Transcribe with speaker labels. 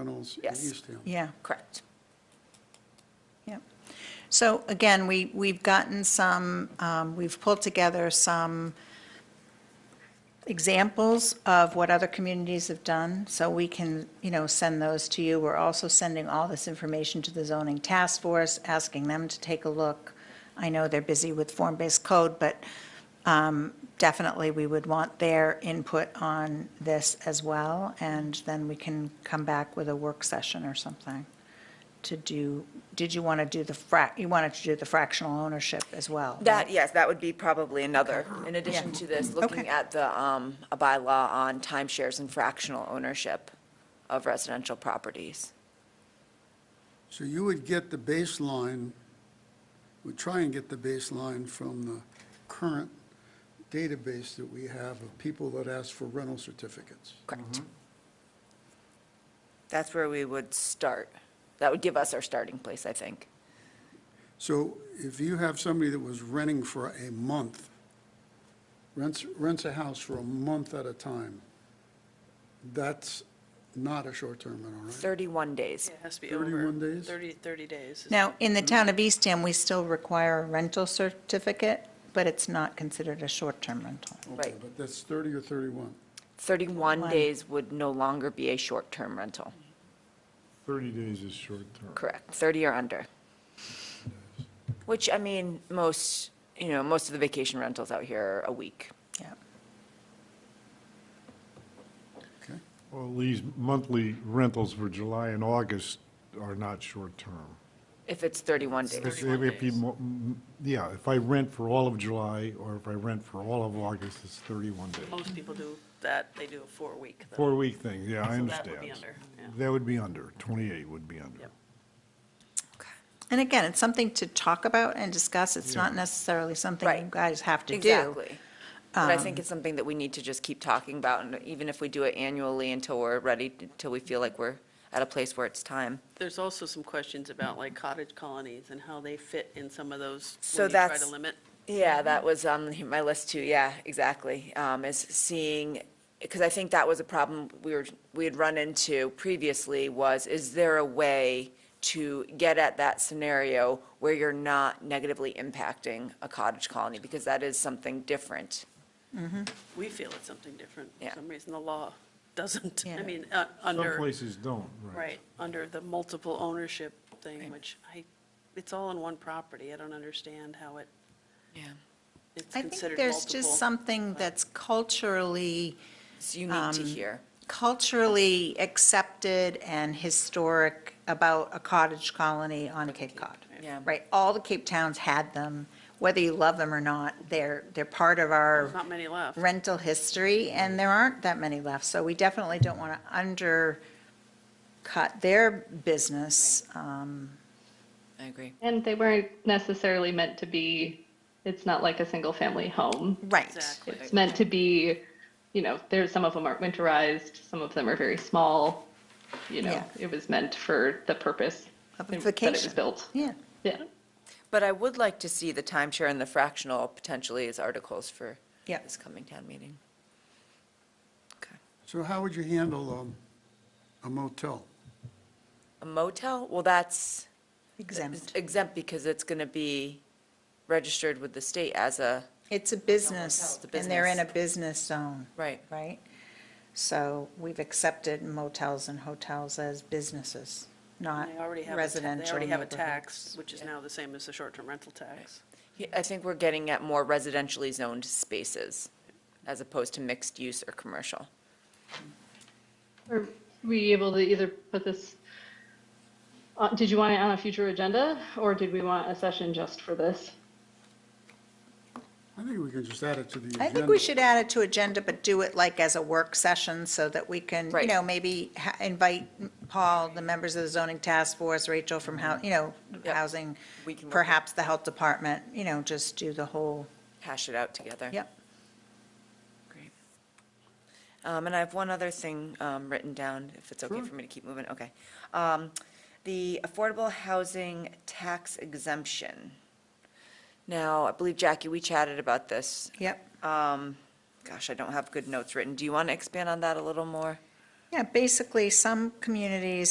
Speaker 1: Hills in
Speaker 2: Yes.
Speaker 1: East Town.
Speaker 3: Yeah,
Speaker 2: Correct.
Speaker 3: yeah. So again, we, we've gotten some, um, we've pulled together some examples of what other communities have done, so we can, you know, send those to you. We're also sending all this information to the zoning task force, asking them to take a look. I know they're busy with form-based code, but um, definitely we would want their input on this as well, and then we can come back with a work session or something to do, did you want to do the frac, you wanted to do the fractional ownership as well? right?
Speaker 2: That, yes, that would be probably another, in addition to this, looking
Speaker 3: Okay.
Speaker 2: at the, um, a bylaw on timeshares and fractional ownership of residential properties.
Speaker 1: So you would get the baseline, would try and get the baseline from the current database that we have of people that ask for rental certificates.
Speaker 2: Correct. That's where we would start. That would give us our starting place, I think.
Speaker 1: So if you have somebody that was renting for a month, rents, rents a house for a month at a time, that's not a short-term rental, right?
Speaker 2: 31 days.
Speaker 4: It has to be over.
Speaker 1: 31 days?
Speaker 4: 30, 30 days. is-
Speaker 3: Now, in the town of Eastham, we still require a rental certificate, but it's not considered a short-term rental.
Speaker 1: Okay,
Speaker 2: Right.
Speaker 1: But that's 30 or 31?
Speaker 2: 31
Speaker 3: One.
Speaker 2: days would no longer be a short-term rental.
Speaker 5: 30 days is short-term.
Speaker 2: Correct, 30 or under. Which, I mean, most, you know, most of the vacation rentals out here are a week.
Speaker 3: Yeah.
Speaker 1: Okay.
Speaker 5: Well, these monthly rentals for July and August are not short-term.
Speaker 2: If it's 31 days,
Speaker 5: If- if you mo- m- Yeah, if I rent for all of July, or if I rent for all of August, it's 31 days.
Speaker 4: Most people do that, they do a four-week. though.
Speaker 5: Four-week thing, yeah, I
Speaker 4: So
Speaker 5: understand.
Speaker 4: that would be under, yeah.
Speaker 5: That would be under, 28 would be under.
Speaker 4: Yep.
Speaker 3: And again, it's something to talk about and discuss. It's not necessarily something you
Speaker 2: Right.
Speaker 3: guys have to do.
Speaker 2: exactly. But I think it's something that we need to just keep talking about, and even if we do it annually until we're ready, until we feel like we're at a place where it's time.
Speaker 4: There's also some questions about like cottage colonies and how they fit in some of those,
Speaker 2: So
Speaker 4: when you try to
Speaker 2: that's-
Speaker 4: limit.
Speaker 2: Yeah, that was on my list too, yeah, exactly, um, is seeing, because I think that was a problem we were, we had run into previously was, is there a way to get at that scenario where you're not negatively impacting a cottage colony? Because that is something different.
Speaker 4: We feel it's something different. For
Speaker 2: Yeah.
Speaker 4: some reason, the law doesn't. I
Speaker 3: Yeah.
Speaker 4: mean, uh,
Speaker 5: Some
Speaker 4: under,
Speaker 5: places don't, right.
Speaker 4: right, under the multiple ownership thing, which I, it's all on one property. I don't understand how it,
Speaker 2: Yeah.
Speaker 4: it's
Speaker 3: I think
Speaker 4: considered
Speaker 3: there's just
Speaker 4: multiple.
Speaker 3: something that's culturally,
Speaker 2: It's unique to
Speaker 3: Um,
Speaker 2: hear.
Speaker 3: culturally accepted and historic about a cottage colony on Cape Cod.
Speaker 2: Yeah.
Speaker 3: Right? All the Cape towns had them, whether you love them or not, they're, they're part of our
Speaker 4: There's not many left.
Speaker 3: rental history, and there aren't that many left, so we definitely don't want to undercut their business. Um,
Speaker 2: I agree.
Speaker 6: And they weren't necessarily meant to be, it's not like a single family home.
Speaker 3: Right,
Speaker 4: Exactly.
Speaker 6: It's meant to be, you know, there's, some of them aren't winterized, some of them are very small. You know,
Speaker 3: Yeah.
Speaker 6: it was meant for the purpose
Speaker 3: Of a
Speaker 6: that it
Speaker 3: vacation.
Speaker 6: was built.
Speaker 3: yeah.
Speaker 6: Yeah.
Speaker 2: But I would like to see the timeshare and the fractional potentially as articles for
Speaker 3: Yeah.
Speaker 2: this coming town meeting. Okay.
Speaker 1: So how would you handle um, a motel?
Speaker 2: A motel, well, that's.
Speaker 3: Exempt.
Speaker 2: Exempt because it's going to be registered with the state as a,
Speaker 3: It's a business,
Speaker 2: It's a
Speaker 3: and they're in a
Speaker 2: business.
Speaker 3: business zone,
Speaker 2: right,
Speaker 3: right? So we've accepted motels and hotels as businesses, not
Speaker 4: They already have, a ta- they
Speaker 3: residential
Speaker 4: already have a
Speaker 3: neighborhoods.
Speaker 4: tax, which is now the same as the short-term rental tax.
Speaker 2: Yeah, I think we're getting at more residentially zoned spaces as opposed to mixed use or commercial.
Speaker 6: Are we able to either put this, uh, did you want it on a future agenda or did we want a session just for this?
Speaker 1: I think we can just add it to the agenda.
Speaker 3: I think we should add it to agenda, but do it like as a work session so that we can, you
Speaker 2: Right.
Speaker 3: know, maybe ha- invite Paul, the members of the zoning task force, Rachel from hou, you know,
Speaker 2: Yep.
Speaker 3: housing,
Speaker 2: We can work it.
Speaker 3: perhaps the health department, you know, just do the whole,
Speaker 2: Hash it out together.
Speaker 3: yep.
Speaker 2: Great. Um, And I have one other thing um, written down, if it's okay for me to keep moving, okay. Um, The affordable housing tax exemption. Now, I believe, Jackie, we chatted about this.
Speaker 3: Yep.
Speaker 2: Um, Gosh, I don't have good notes written. Do you want to expand on that a little more?
Speaker 3: Yeah, basically, some communities